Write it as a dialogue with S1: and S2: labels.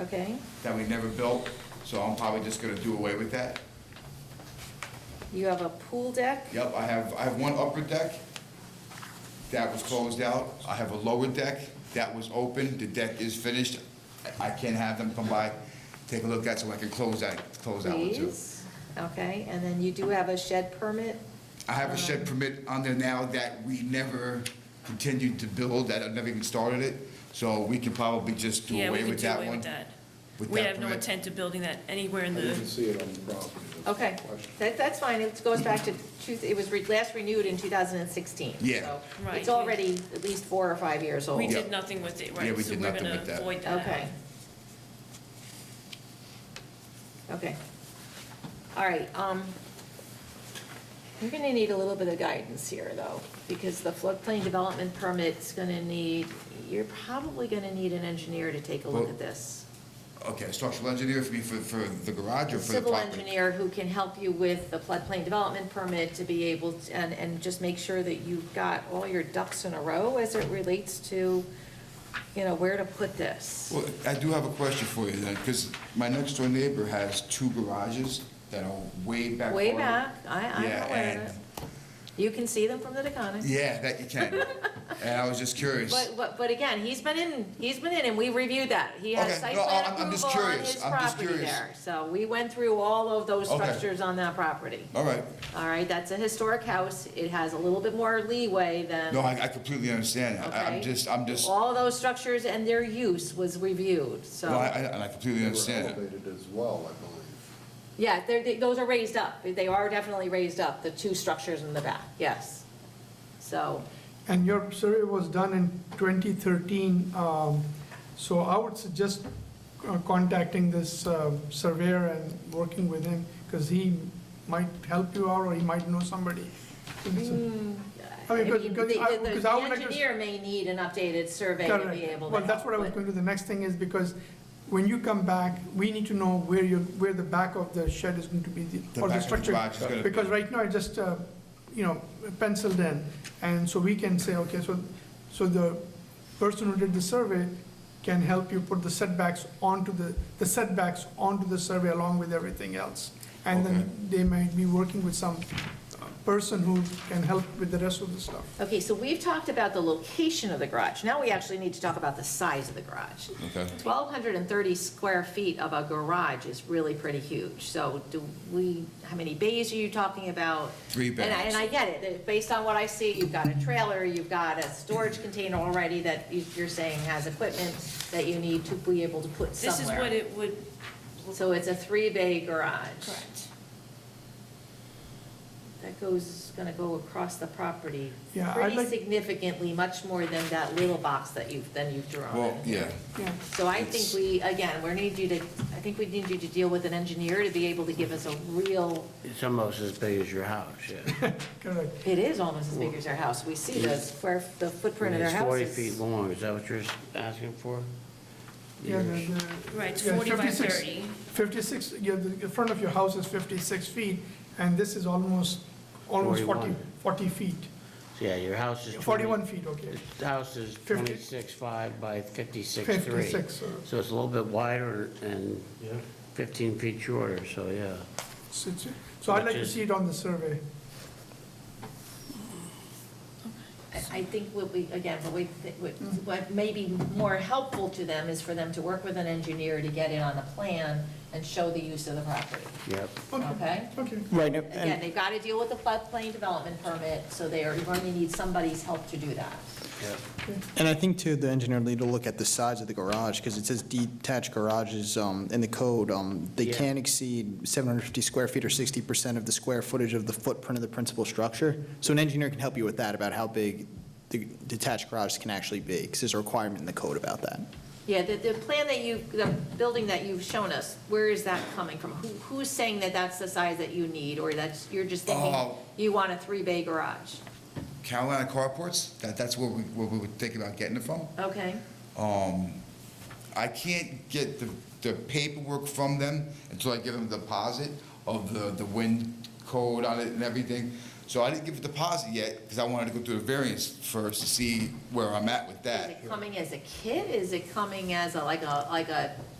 S1: Okay,
S2: that we never built, so I'm probably just gonna do away with that.
S1: you have a pool deck?
S2: Yep, I have, I have one upper deck that was closed out. I have a lower deck that was open. The deck is finished. I I can have them come by, take a look at, so I can close that, close that one too.
S1: Please, okay, and then you do have a shed permit?
S2: I have a shed permit on there now that we never continued to build, that I never even started it. So we can probably just do
S3: Yeah, we
S2: away
S3: could
S2: with
S3: do
S2: that
S3: away
S2: one.
S3: with that.
S2: with
S3: We
S2: that
S3: have no
S2: permit.
S3: intent of building that anywhere
S4: I
S3: in
S4: didn't
S3: the,
S4: see it on the property. That's
S1: Okay,
S4: the question.
S1: that, that's fine, it goes back to, two- it was re- last renewed in 2016.
S2: Yeah.
S1: so
S3: Right.
S1: It's already at least four or five years old.
S3: we
S2: Oh, Yeah.
S3: did nothing with it, right?
S2: Yeah, we
S3: so
S2: did
S3: we're
S2: nothing
S3: gonna
S2: with that.
S3: void out.
S1: Okay. Okay. All right, um, you're gonna need a little bit of guidance here, though, because the floodplain development permit's gonna need, you're probably gonna need an engineer to take a look
S2: Well,
S1: at this.
S2: Okay, structural engineer for me, for, for the garage or for the property?
S1: Civil engineer who can help you with the floodplain development permit to be able, to- and, and just make sure that you've got all your ducks in a row as it relates to, you know, where to put this.
S2: Well, I do have a question for you then, because my next door neighbor has two garages that are way back.
S1: Way
S2: farther.
S1: back, I, I'm
S2: Yeah,
S1: aware of
S2: and-
S1: it. You can see them from the Deconic.
S2: Yeah, that you can. And I was just curious.
S1: But, but, but again, he's been in, he's been in and we reviewed that. He has
S2: Okay,
S1: site
S2: no,
S1: plan
S2: I'm- I'm just
S1: approval on
S2: curious.
S1: his
S2: I'm just
S1: property
S2: curious.
S1: there. So we went through all of those
S2: Okay.
S1: structures on that property.
S2: All right.
S1: All right, that's a historic house. It has a little bit more leeway than.
S2: No, I I completely understand that. I- I'm
S1: okay?
S2: just, I'm just, no,
S1: All those structures and their use was reviewed, so.
S2: I, I- and I completely
S4: They
S2: understand
S4: were
S2: that.
S4: elevated as well, I believe.
S1: Yeah, they're, they- those are raised up. They are definitely raised up, the two structures in the back, yes. So,
S5: And your survey was done in 2013, um, so I would suggest uh, contacting this uh, surveyor and working with him, because he might help you out, or he might know somebody.
S1: Mm,
S5: I
S1: I
S5: mean,
S1: mean,
S5: because-
S1: the,
S5: because I-
S1: the-
S5: because
S1: the
S5: I would like to-
S1: engineer may need an updated survey to be
S5: Correct.
S1: able to.
S5: Well, that's
S1: help
S5: what I was
S1: with.
S5: going to, the next thing is, because when you come back, we need to know where you, where the back of the shed is going to be, the-
S2: The back
S5: or
S2: of
S5: the
S2: the
S5: structure.
S2: garage is gonna be-
S5: Because right now, I just, uh, you know, penciled in, and so we can say, okay, so, so the person who did the survey can help you put the setbacks onto the, the setbacks onto the survey along with everything else. And then they might be working with some uh, person who can help with the rest of the stuff.
S1: Okay, so we've talked about the location of the garage. Now we actually need to talk about the size of the garage.
S2: Okay.
S1: 1,230 square feet of a garage is really pretty huge. So do we, how many bays are you talking about?
S2: Three
S1: And I-
S2: bays.
S1: And I get it, that based on what I see, you've got a trailer, you've got a storage container already that you- you're saying has equipment that you need to be able to put
S3: This is what
S1: somewhere.
S3: it would,
S1: So it's a three-bay garage.
S3: correct.
S1: That goes, is gonna go across the property
S5: Yeah, I'd
S1: pretty
S5: like-
S1: significantly, much more than that little box that you've, than you've
S2: Well,
S1: drawn.
S2: yeah.
S5: Yeah.
S1: So I think we, again, we need you to, I think we need you to deal with an engineer to be able to give us a real,
S6: It's almost as big as your house, yeah.
S5: Correct.
S1: it is almost as big as our house. We see the square, the footprint of our
S6: It's
S1: house
S6: forty
S1: is.
S6: feet long, is that what you're asking for?
S5: Yeah, the-
S6: Yours.
S5: the-
S3: Right, it's
S5: yeah,
S3: 40 by
S5: 56
S3: 30.
S5: 56, yeah, the the front of your house is 56 feet, and this is almost, almost 40,
S6: 41.
S5: 40 feet,
S6: So, Yeah, your house is. 20
S5: 41 feet, okay.
S6: The house is
S5: Fifty.
S6: twenty-six five by fifty-six three.
S5: 56, uh,
S6: So it's a little bit wider and fifteen feet shorter, so yeah.
S5: so it's- so I'd like to
S6: Which is-
S5: see it on the survey.
S1: I I think what we, again, what we, what-
S5: Mm-hmm.
S1: what may be more helpful to them is for them to work with an engineer to get it on the plan and show the use of the property,
S6: Yep.
S1: okay?
S5: Okay,
S7: Right, and-
S1: Again,
S7: and
S1: they've got to deal with the floodplain development permit, so they are going to need somebody's help to do that.
S6: Yep.
S7: and I think too, the engineer need to look at the size of the garage, because it says detached garages um, in the code, um, they
S6: Yeah.
S7: can't exceed 750 square feet or 60% of the square footage of the footprint of the principal structure. So an engineer can help you with that, about how big the detached garage can actually be, because there's a requirement in the code about that.
S1: Yeah, the, the plan that you, the building that you've shown us, where is that coming from? Who, who's saying that that's the size that you need, or that's, you're just thinking
S2: Oh.
S1: you want a three-bay garage?
S2: Carolina carports, that, that's where we, where we were thinking about getting it from.
S1: Okay,
S2: Um, I can't get the, the paperwork from them until I give them the deposit of the, the wind code on it and everything. So I didn't give a deposit yet, because I wanted to go through the variance first to see where I'm at with
S1: is
S2: that.
S1: it coming as a kit, is it coming as a, like a, like a